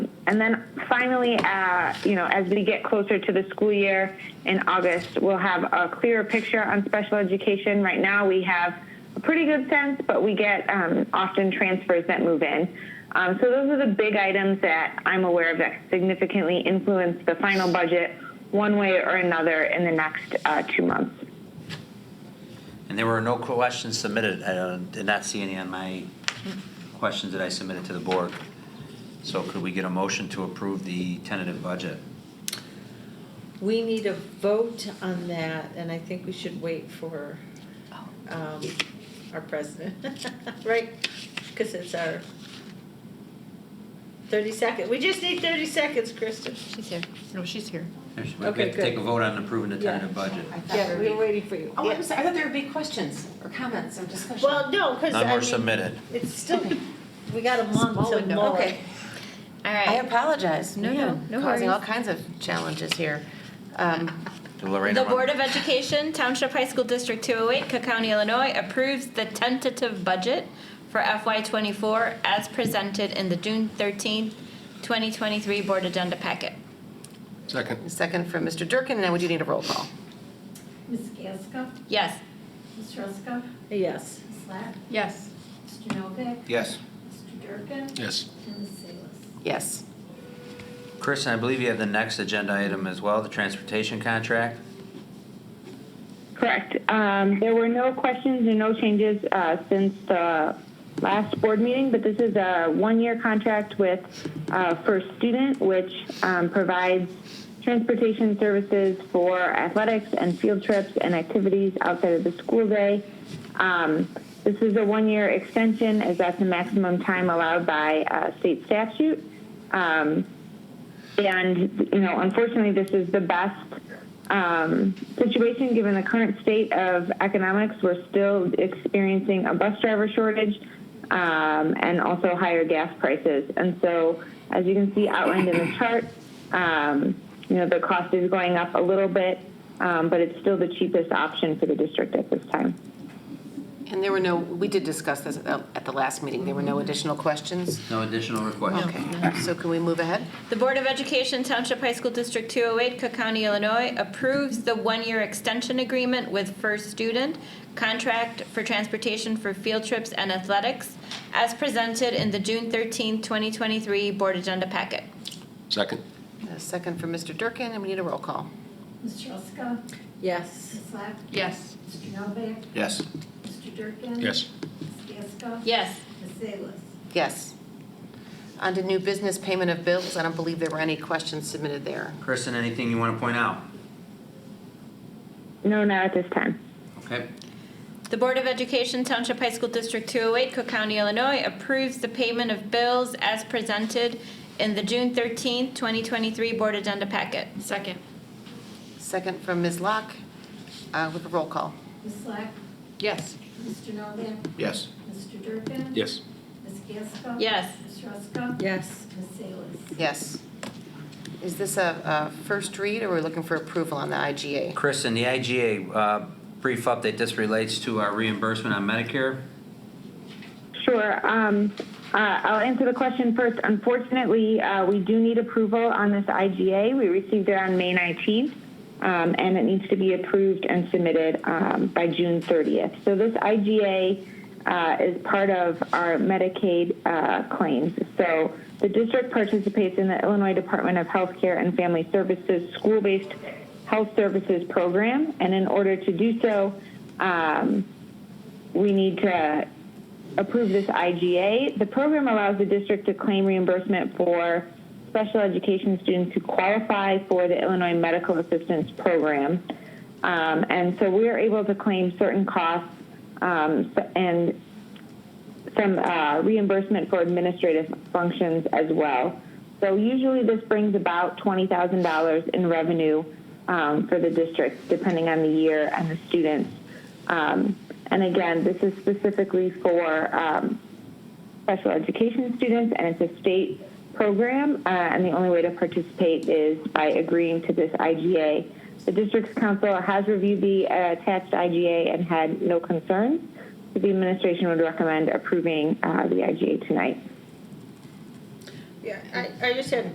And then finally, uh, you know, as we get closer to the school year in August, we'll have a clearer picture on special education. Right now, we have a pretty good sense, but we get um, often transfers that move in. Um, so those are the big items that I'm aware of that significantly influence the final budget one way or another in the next uh, two months. And there were no questions submitted. I uh, did not see any on my questions that I submitted to the board. So could we get a motion to approve the tentative budget? We need a vote on that, and I think we should wait for um, our president, right? Because it's our 30 second, we just need 30 seconds, Kristen. She's here. No, she's here. We have Okay, to take a good. vote on approving the Yeah. tentative budget. I thought Yeah, there we were- were waiting for you. Oh, Yeah. I'm sorry, I thought there would be questions or comments or discussion. Well, no, because None I were mean, submitted. it's still, we got a month Small to window. mull it. Okay, All I right. apologize. No, We no, are no Causing all worries. kinds of challenges here. Um, Did Lorraine The run- Board of Education, Township High School District 208, Cook County, Illinois approves the tentative budget for FY24 as presented in the June 13th, 2023 Board Agenda Packet. Second. Second from Mr. Durkin, and now would you need a roll call? Ms. Gasko? Yes. Ms. Ruska? Yes. Ms. Slack? Yes. Mr. Novak? Yes. Mr. Durkin? Yes. And Ms. Salas? Yes. Chris, I believe you have the next agenda item as well, the transportation contract. Correct. Um, There were no questions and no changes uh, since the last board meeting, but this is a one-year contract with uh, First Student, which um, provides transportation services for athletics and field trips and activities outside of the school day. Um, This is a one-year extension, as that's the maximum time allowed by uh, state statute. Um, and, you know, unfortunately, this is the best um, situation given the current state of economics. We're still experiencing a bus driver shortage um, and also higher gas prices. And so, as you can see outlined in the chart, um, you know, the cost is going up a little bit, um, but it's still the cheapest option for the district at this time. And there were no, we did discuss this at the last meeting, there were no additional questions? No additional requests. Okay, so can we move ahead? The Board of Education, Township High School District 208, Cook County, Illinois approves the one-year extension agreement with First Student Contract for Transportation for Field Trips and Athletics as presented in the June 13, 2023 Board Agenda Packet. Second. A Uh, Second from Mr. Durkin, and we need a roll call. Ms. Ruska? Yes. Ms. Slack? Yes. Mr. Novak? Yes. Mr. Durkin? Yes. Ms. Gasko? Yes. Ms. Salas? Yes. On to new business payment of bills, I don't believe there were any questions submitted there. Kristen, anything you want to point out? No, not at this time. Okay. The Board of Education, Township High School District 208, Cook County, Illinois approves the payment of bills as presented in the June 13, 2023 Board Agenda Packet. Second. Second from Ms. Locke, uh, with a roll call. Ms. Slack? Yes. Mr. Novak? Yes. Mr. Durkin? Yes. Ms. Gasko? Yes. Ms. Ruska? Yes. Ms. Salas? Yes. Is this a, a first read, or we're looking for approval on the IGA? Kristen, the IGA, uh, brief update, this relates to our reimbursement on Medicare. Sure. Um, uh, I'll answer the question first. Unfortunately, uh, we do need approval on this IGA. We received it on May 19th, um, and it needs to be approved and submitted um, by June 30th. So this IGA uh, is part of our Medicaid uh, claims. So the district participates in the Illinois Department of Healthcare and Family Services school-based health services program, and in order to do so, um, we need to approve this IGA. The program allows the district to claim reimbursement for special education students who qualify for the Illinois Medical Assistance Program. Um, and so we are able to claim certain costs um, s- and some uh, reimbursement for administrative functions as well. So usually this brings about $20,000 in revenue um, for the district, depending on the year and the students. Um, and again, this is specifically for um, special education students, and it's a state program, uh, and the only way to participate is by agreeing to this IGA. The district's council has reviewed the uh, attached IGA and had no concerns. So The administration would recommend approving uh, the IGA tonight. Yeah, I, I just had